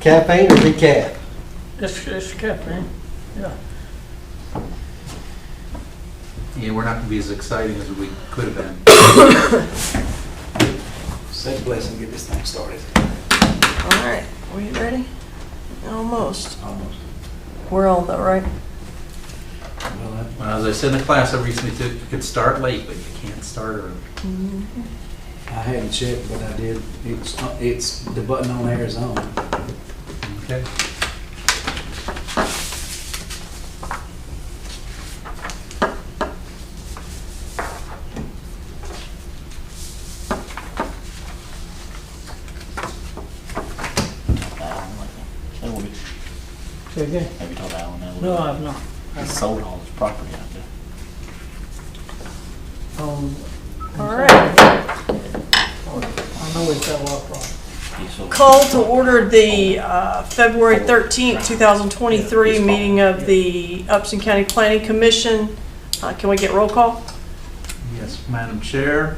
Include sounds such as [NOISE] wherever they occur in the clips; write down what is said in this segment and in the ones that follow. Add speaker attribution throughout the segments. Speaker 1: Caffeine or decaf?
Speaker 2: It's, it's caffeine, yeah.
Speaker 3: Yeah, we're not gonna be as exciting as we could have been.
Speaker 1: Say a blessing, get this thing started.
Speaker 4: All right, were you ready? Almost.
Speaker 1: Almost.
Speaker 4: We're on though, right?
Speaker 1: Well,
Speaker 3: When I was, I said in the class, I recently took, you could start late, but you can't start early.
Speaker 4: Mm-hmm.
Speaker 1: I I hadn't checked, but I did. It's, uh, it's, the button on there is on.
Speaker 3: Okay.
Speaker 5: Alan, like, that would be-
Speaker 2: Say again?
Speaker 5: Have you told Alan that? would
Speaker 2: No,
Speaker 5: be-
Speaker 2: I've not.
Speaker 5: He sold all his property out there.
Speaker 2: Um,
Speaker 4: All right.
Speaker 2: I know we fell off,
Speaker 5: He sold-
Speaker 4: Call to order the uh, February 13th, 2023 meeting of the Upson County Planning Commission. Uh, Can we get roll call?
Speaker 3: Yes, Madam Chair,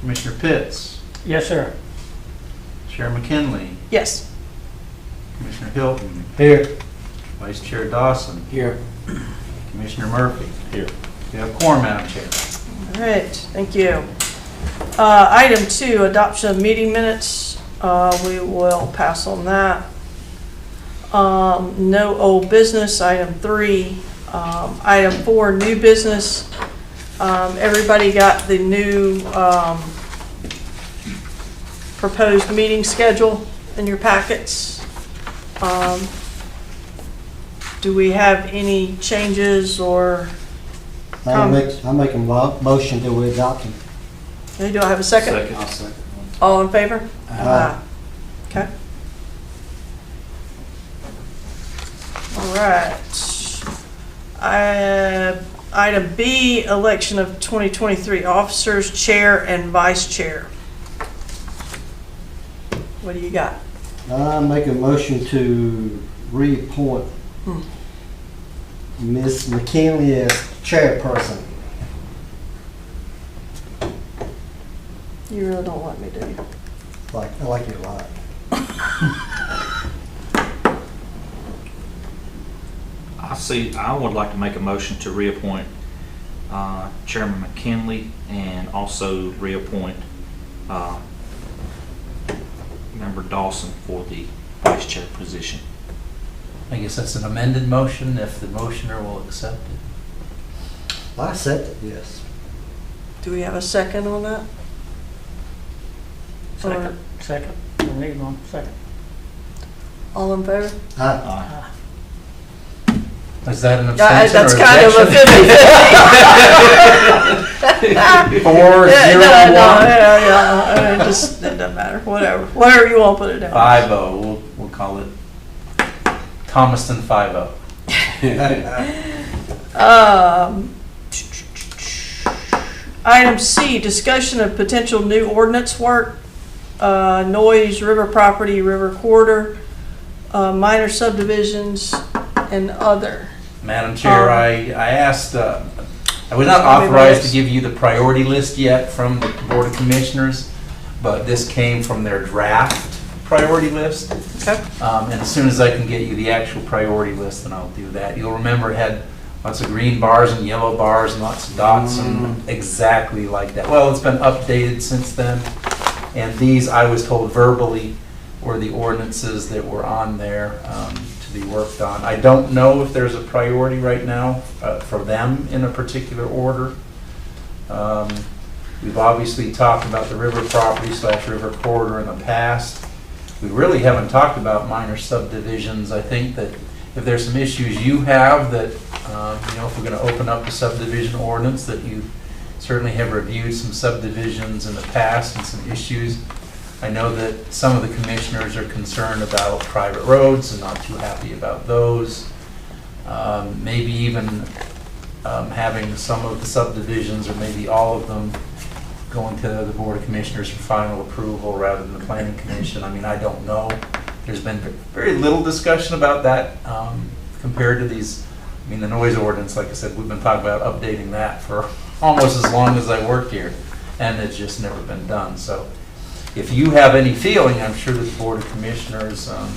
Speaker 3: Commissioner Pitts,
Speaker 2: right? Yes, sir.
Speaker 3: Chair McKinley,
Speaker 4: Yes.
Speaker 3: Commissioner Hilton,
Speaker 1: Here.
Speaker 3: Vice Chair Dawson,
Speaker 1: Here.
Speaker 3: Commissioner Murphy.
Speaker 5: Here.
Speaker 3: We have quorum, Madam Chair.
Speaker 4: All right, thank you. Uh, Item two, adoption of meeting minutes. Uh, We will pass on that. Um, No old business, item three. Um, Item four, new business. Um, Everybody got the new um, proposed meeting schedule in your packets. Um, Do we have any changes or,
Speaker 6: I'll make, I'll make a mo- motion that we adopt them.
Speaker 4: do I have a second?
Speaker 1: I'll second one.
Speaker 4: All in favor?
Speaker 6: Aye.
Speaker 4: Okay. All right. I- Item B, election of 2023 officers, chair and vice chair. What do you got?
Speaker 6: I'll make a motion to reappoint
Speaker 4: Hmm.
Speaker 6: Ms. McKinley as chairperson.
Speaker 4: You really don't want me, do you?
Speaker 6: Like, I like it a lot.
Speaker 7: I see, I would like to make a motion to reappoint uh, Chairman McKinley and also reappoint uh, Member Dawson for the vice chair position.
Speaker 3: I guess that's an amended motion, if the motioner will accept it.
Speaker 6: I accept it, yes.
Speaker 4: Do we have a second on that?
Speaker 2: Second, second. We need one, second.
Speaker 4: All in favor?
Speaker 6: Aye.
Speaker 7: Uh,
Speaker 3: Is that an
Speaker 4: Yeah,
Speaker 3: abstention or
Speaker 4: Uh, That's kind of a
Speaker 3: objection? [LAUGHS]
Speaker 4: 50/50.
Speaker 3: Four,
Speaker 4: Yeah,
Speaker 3: zero,
Speaker 4: no, no,
Speaker 3: one.
Speaker 4: yeah, yeah, uh, it just, it doesn't matter, whatever, whatever you want, put it down.
Speaker 3: Five oh, we'll, we'll call it Thomaston five oh.
Speaker 4: Um, Item C, discussion of potential new ordinance work, uh, noise, river property, river corridor, uh, minor subdivisions, and other.
Speaker 3: Madam Chair,
Speaker 4: Um,
Speaker 3: I, I asked, uh, I was not
Speaker 4: Everybody
Speaker 3: authorized
Speaker 4: else.
Speaker 3: to give you the priority list yet from the Board of Commissioners, but this came from their draft priority list.
Speaker 4: Okay.
Speaker 3: Um, And as soon as I can get you the actual priority list, then I'll do that. You'll remember it had lots of green bars and yellow bars and lots of dots and exactly like that. Well, it's been updated since then. And these, I was told verbally, were the ordinances that were on there um, to be worked on. I don't know if there's a priority right now uh, for them in a particular order. Um, We've obviously talked about the river property slash river corridor in the past. We really haven't talked about minor subdivisions. I think that if there's some issues you have that, um, you know, if we're going to open up the subdivision ordinance, that you certainly have reviewed some subdivisions in the past and some issues. I know that some of the commissioners are concerned about private roads and not too happy about those. Um, Maybe even um, having some of the subdivisions, or maybe all of them, going to the Board of Commissioners for final approval rather than the Planning Commission. I mean, I don't know. There's been ve- very little discussion about that um, compared to these, I mean, the noise ordinance, like I said, we've been talking about updating that for [LAUGHS] almost as long as I worked here, and it's just never been done. So if you have any feeling, I'm sure that the Board of Commissioners um,